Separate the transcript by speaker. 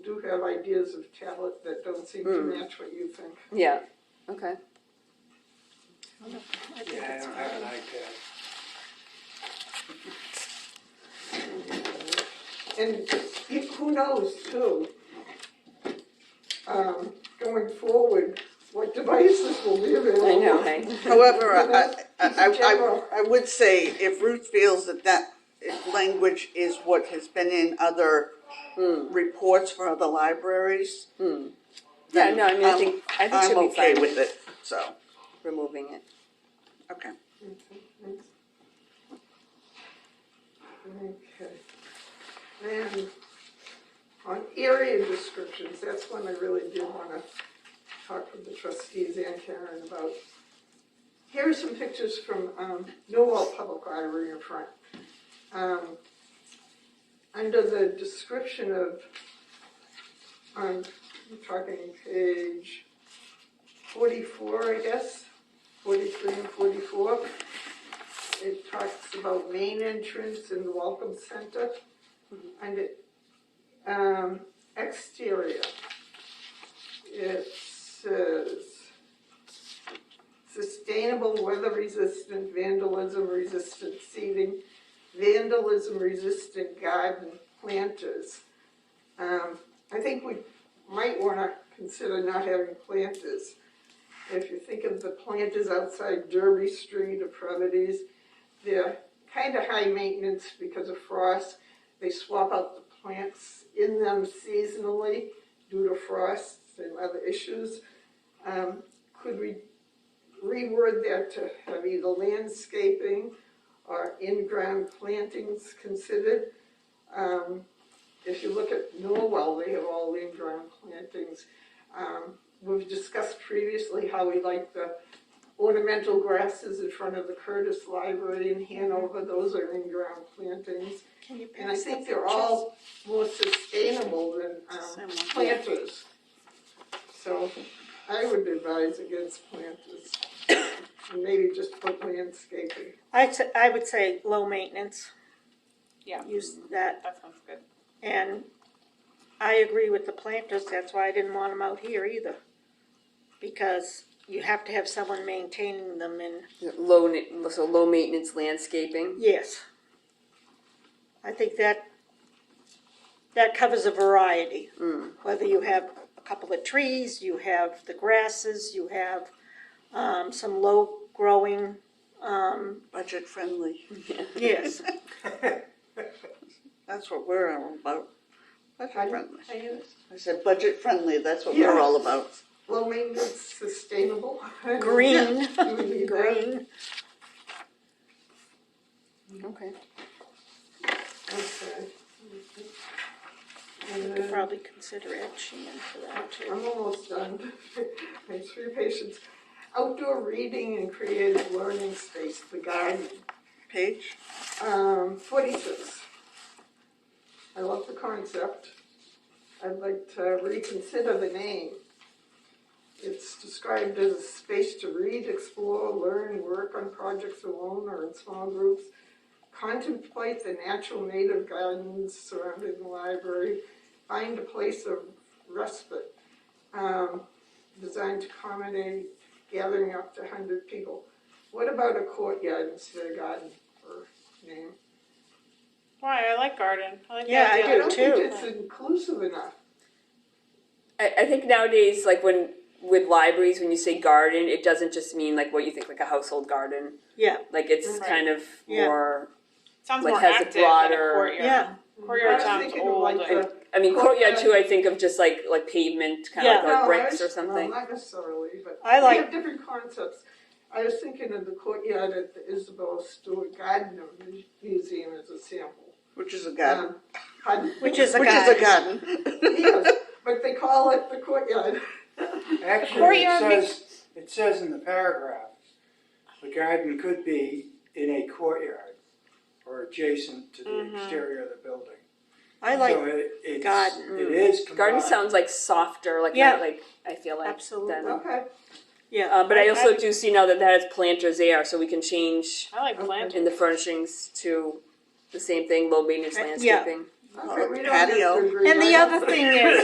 Speaker 1: do have ideas of talent that don't seem
Speaker 2: Hmm.
Speaker 1: to match what you think.
Speaker 2: Yeah, okay.
Speaker 3: Yeah, I don't have an iPad.
Speaker 1: And it- who knows too, um, going forward, what devices will be available.
Speaker 2: I know, hey?
Speaker 4: However, I, I,
Speaker 1: That's
Speaker 4: I,
Speaker 1: just general.
Speaker 4: I- I would say if Ruth feels that that language is what has been in other reports for other libraries.
Speaker 2: Hmm. Yeah,
Speaker 4: then
Speaker 2: no, I mean, I
Speaker 4: I'm-
Speaker 2: think, I think she'll
Speaker 4: I'm
Speaker 2: be
Speaker 4: okay
Speaker 2: fine
Speaker 4: with
Speaker 2: with
Speaker 4: it, so,
Speaker 2: removing it.
Speaker 4: okay.
Speaker 1: Okay. Then, on area descriptions, that's one I really did wanna talk with the trustees and Karen about. Here are some pictures from, um, Millwall Public Library in front. Um, under the description of, um, I'm talking page forty-four, I guess, forty-three and forty-four it talks about main entrance and the welcome center. And it, um, exterior. It says sustainable weather resistant vandalism resistant seating, vandalism resistant garden planters. Um, I think we might wanna consider not having planters. If you think of the planters outside Derby Street or Providence, they're kind of high maintenance because of frost. They swap out the plants in them seasonally due to frosts and other issues. Um, could we reword that to have either landscaping or in-ground plantings considered? Um, if you look at Norwell, they have all in-ground plantings. Um, we've discussed previously how we like the ornamental grasses in front of the Curtis Library in Hanover, those are in-ground plantings.
Speaker 5: Can you
Speaker 1: And I think they're all more sustainable than, um,
Speaker 4: Similar.
Speaker 1: planters. So I would advise against planters, and maybe just put landscaping.
Speaker 5: I, t- I would say low maintenance,
Speaker 6: Yeah,
Speaker 5: use that,
Speaker 6: that sounds good.
Speaker 5: and I agree with the planters, that's why I didn't want them out here either. Because you have to have someone maintaining them and,
Speaker 2: Low, na- so low maintenance landscaping.
Speaker 5: yes. I think that, that covers a variety.
Speaker 1: Mm.
Speaker 5: Whether you have a couple of trees, you have the grasses, you have, um, some low growing, um,
Speaker 4: Budget friendly,
Speaker 5: yes.
Speaker 4: that's what we're all about. Budget friendly.
Speaker 1: And
Speaker 4: I said budget friendly, that's what we're all about.
Speaker 1: Low maintenance, sustainable.
Speaker 5: Green,
Speaker 1: You would need that.
Speaker 5: green.
Speaker 2: Okay.
Speaker 1: Okay.
Speaker 5: We
Speaker 1: And
Speaker 5: could
Speaker 1: then-
Speaker 5: probably consider etching in for that too.
Speaker 1: I'm almost done. My three patients. Outdoor reading and creative learning space, the garden,
Speaker 4: Paige,
Speaker 1: um, forty-six. I love the concept. I'd like to reconsider the name. It's described as a space to read, explore, learn, work on projects alone or in small groups, contemplate the natural native gardens surrounding the library, find a place of respite, um, designed to accommodate gathering up to hundred people. What about a courtyard instead of garden or name?
Speaker 6: Why, I like garden. I like the
Speaker 5: Yeah, I
Speaker 6: idea.
Speaker 5: do.
Speaker 1: I don't think
Speaker 5: too.
Speaker 1: it's inclusive enough.
Speaker 2: I, I think nowadays, like when, with libraries, when you say garden, it doesn't just mean like what you think, like a household garden.
Speaker 5: Yeah,
Speaker 2: Like it's
Speaker 6: Right.
Speaker 2: kind of
Speaker 5: Yeah.
Speaker 2: more,
Speaker 6: Sounds
Speaker 2: Like,
Speaker 6: more
Speaker 2: has a
Speaker 6: active than a
Speaker 2: broader-
Speaker 6: courtyard.
Speaker 5: yeah,
Speaker 1: I
Speaker 6: Courtyard
Speaker 1: was
Speaker 6: sounds
Speaker 1: thinking of
Speaker 6: old.
Speaker 1: like
Speaker 6: and-
Speaker 1: the-
Speaker 2: I mean, courtyard
Speaker 1: Courtyard.
Speaker 2: too, I think of just like, like pavement, kind of
Speaker 5: Yeah.
Speaker 2: like, like
Speaker 1: No, Oh, I
Speaker 2: bricks
Speaker 1: was-
Speaker 2: or something.
Speaker 1: No, not necessarily, but
Speaker 5: I
Speaker 1: they
Speaker 5: like-
Speaker 1: have different concepts. I was thinking of the courtyard at the Isabel Stewart Gardner Mu- Museum as a sample.
Speaker 4: which is a garden,
Speaker 1: Um, pardon?
Speaker 5: which is a
Speaker 4: which is a
Speaker 5: guy.
Speaker 4: garden.
Speaker 1: Yes, But they call it the courtyard.
Speaker 3: Actually, it
Speaker 6: Courtyard
Speaker 3: says, it says in the paragraph, the garden could be in a courtyard or adjacent to the exterior of the building.
Speaker 5: I like,
Speaker 3: So it- it's-
Speaker 5: garden.
Speaker 3: It is combined.
Speaker 2: Garden sounds like softer, like,
Speaker 5: Yeah.
Speaker 2: not like, I feel like.
Speaker 5: Absolutely.
Speaker 2: than-
Speaker 1: Okay,
Speaker 5: yeah.
Speaker 2: Uh, but I also
Speaker 5: I-
Speaker 2: do see now that that has planters there, so we can change
Speaker 6: I like
Speaker 1: Okay.
Speaker 6: planters.
Speaker 2: in the furnishings to the same thing, low maintenance
Speaker 5: Yeah.
Speaker 2: landscaping.
Speaker 1: okay, we don't have
Speaker 4: Patio.
Speaker 1: to agree.
Speaker 5: And the
Speaker 1: right?
Speaker 5: other thing is,